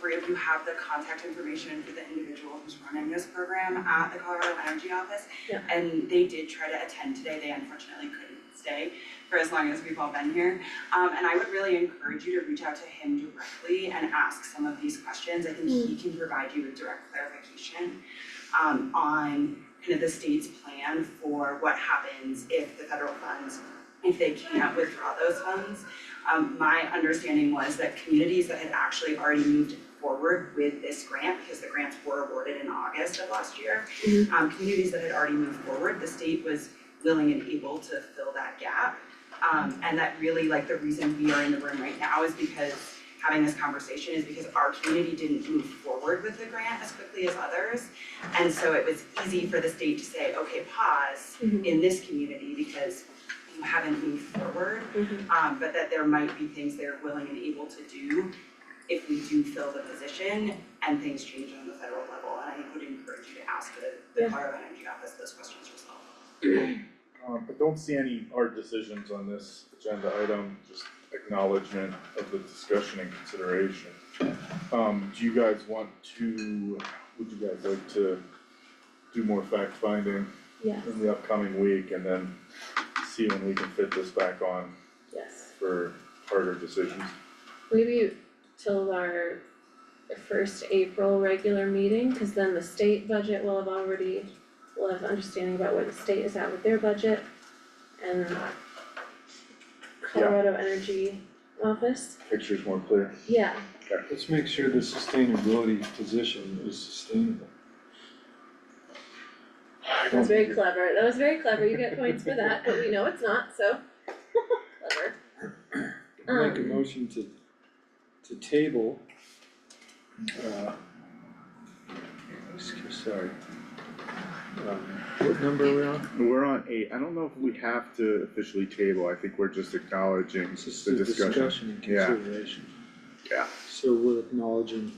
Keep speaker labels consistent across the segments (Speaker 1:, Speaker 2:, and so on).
Speaker 1: great if you have the contact information for the individual who's running this program at the Colorado Energy Office.
Speaker 2: Yeah.
Speaker 1: And they did try to attend today, they unfortunately couldn't stay for as long as we've all been here. Um, and I would really encourage you to reach out to him directly and ask some of these questions. I think he can provide you with direct clarification um, on kind of the state's plan for what happens if the federal funds, if they can't withdraw those funds. Um, my understanding was that communities that had actually already moved forward with this grant, because the grants were awarded in August of last year,
Speaker 2: Mhm.
Speaker 1: um, communities that had already moved forward, the state was willing and able to fill that gap. Um, and that really, like, the reason we are in the room right now is because having this conversation is because our community didn't move forward with the grant as quickly as others. And so it was easy for the state to say, okay, pause
Speaker 2: Mhm.
Speaker 1: in this community because you haven't moved forward
Speaker 2: Mm-hmm.
Speaker 1: um, but that there might be things they're willing and able to do if we do fill the position and things change on the federal level, and I would encourage you to ask the
Speaker 2: Yeah.
Speaker 1: the Colorado Energy Office those questions yourself.
Speaker 3: Um, I don't see any hard decisions on this agenda item, just acknowledgement of the discussion and consideration. Um, do you guys want to, would you guys like to do more fact finding
Speaker 2: Yes,
Speaker 3: in the upcoming week and then see when we can fit this back on
Speaker 2: yes.
Speaker 3: for harder decisions?
Speaker 2: Maybe till our first April regular meeting, cause then the state budget will have already, will have understanding about where the state is at with their budget and Colorado Energy Office,
Speaker 3: Picture's more clear.
Speaker 2: yeah,
Speaker 4: Let's make sure the sustainability position is sustainable.
Speaker 2: that was very clever, that was very clever, you get points for that, but we know it's not, so clever.
Speaker 4: Make a
Speaker 2: Um.
Speaker 4: motion to, to table, uh, excuse, sorry. Um, What number are we on?
Speaker 3: We're on eight, I don't know if we have to officially table, I think we're just acknowledging
Speaker 4: This is the discussion and
Speaker 3: Yeah.
Speaker 4: consideration.
Speaker 3: Yeah.
Speaker 4: So we're acknowledging,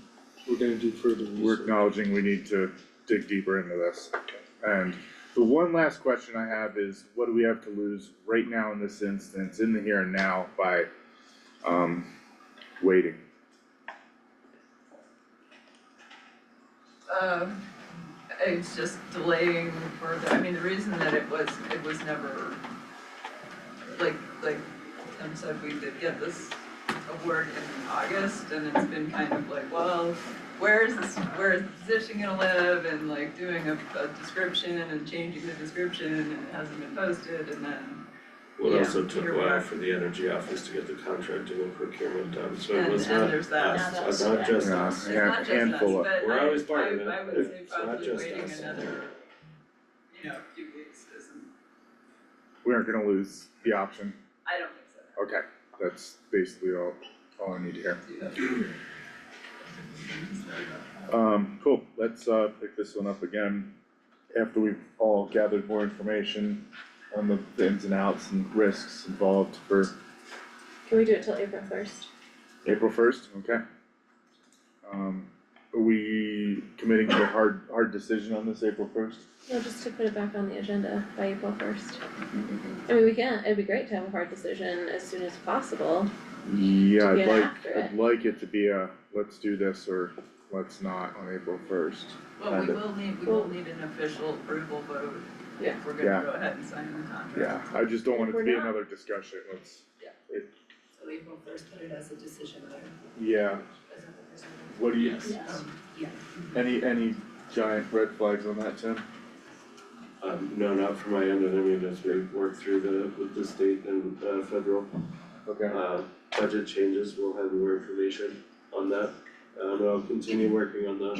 Speaker 4: we're gonna do further
Speaker 3: we're
Speaker 4: research.
Speaker 3: acknowledging we need to dig deeper into this. And the one last question I have is, what do we have to lose right now in this instance, in the here and now, by, um, waiting?
Speaker 5: Um, it's just delaying further, I mean, the reason that it was, it was never, like, like Tim said, we did get this award in August, and it's been kind of like, well, where is this, where is the position gonna live, and like doing a, a description and changing the description, and it hasn't been posted, and then,
Speaker 6: Well, it
Speaker 5: Yeah,
Speaker 6: also took
Speaker 5: here
Speaker 6: a
Speaker 5: we are.
Speaker 6: while for the energy office to get the contracting and procurement done, so it
Speaker 5: and,
Speaker 6: was
Speaker 5: and
Speaker 6: not
Speaker 5: there's that.
Speaker 6: us, it's not just
Speaker 3: Yeah,
Speaker 6: us.
Speaker 3: yeah,
Speaker 5: It's not just
Speaker 3: handful
Speaker 5: us,
Speaker 3: of-
Speaker 5: but
Speaker 6: We're
Speaker 5: I,
Speaker 6: always part of
Speaker 5: I,
Speaker 6: it,
Speaker 5: I
Speaker 6: but
Speaker 5: would say
Speaker 6: it's not
Speaker 5: probably
Speaker 6: just
Speaker 5: waiting
Speaker 6: us.
Speaker 5: another, you know, few weeks isn't,
Speaker 3: We aren't gonna lose the option,
Speaker 5: I don't think so.
Speaker 3: okay, that's basically all, all I need to hear. Um, cool, let's, uh, pick this one up again after we've all gathered more information on the the ins and outs and risks involved for
Speaker 2: Can we do it till April first?
Speaker 3: April first, okay. Um, are we committing to a hard, hard decision on this April first?
Speaker 2: No, just to put it back on the agenda by April first. I mean, we can, it'd be great to have a hard decision as soon as possible,
Speaker 3: Yeah,
Speaker 2: To
Speaker 3: I'd
Speaker 2: get
Speaker 3: like,
Speaker 2: after
Speaker 3: I'd like it to be a, let's do this or let's not on April first.
Speaker 5: Well,
Speaker 3: kind
Speaker 5: we
Speaker 3: of.
Speaker 5: will need, we will need an official approval vote
Speaker 2: Yeah.
Speaker 5: if we're
Speaker 3: Yeah.
Speaker 5: gonna go ahead and sign the
Speaker 3: Yeah,
Speaker 5: contract.
Speaker 3: I just don't want it
Speaker 2: We're
Speaker 3: to be
Speaker 2: not.
Speaker 3: another discussion, let's,
Speaker 5: So April first, put it as a decision letter.
Speaker 3: yeah, what do you,
Speaker 5: Yes.
Speaker 7: Um,
Speaker 3: any, any giant red flags on that, Tim?
Speaker 6: Um, no, not from my end, and I mean, as we work through the, with the state and, uh, federal,
Speaker 3: Okay,
Speaker 6: uh, budget changes, we'll have more information on that. Um, and I'll continue working on the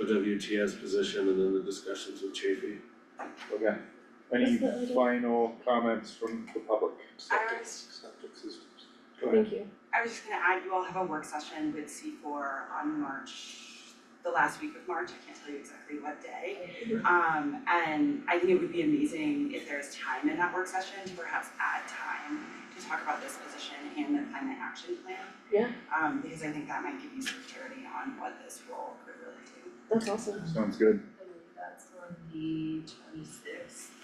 Speaker 6: OWTS position and then the discussions with Chafee.
Speaker 3: okay. Any
Speaker 2: What's the other-
Speaker 3: final comments from the public?
Speaker 4: Septic, septic systems. Go ahead.
Speaker 2: thank you.
Speaker 1: I was just gonna add, you all have a work session with C four on March, the last week of March, I can't tell you exactly what day. Um, and I think it would be amazing if there's time in that work session to perhaps add time to talk about this position and the climate action plan.
Speaker 2: Yeah.
Speaker 1: Um, because I think that might give you some clarity on what this role could really do.
Speaker 2: That's awesome.
Speaker 3: Sounds good.
Speaker 7: I believe that's on the twenty-sixth,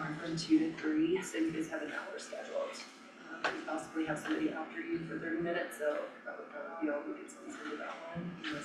Speaker 7: um, from two to three, so you guys have an hour scheduled. Um, you possibly have somebody after you for thirty minutes, so that would probably be all we could squeeze into that one, and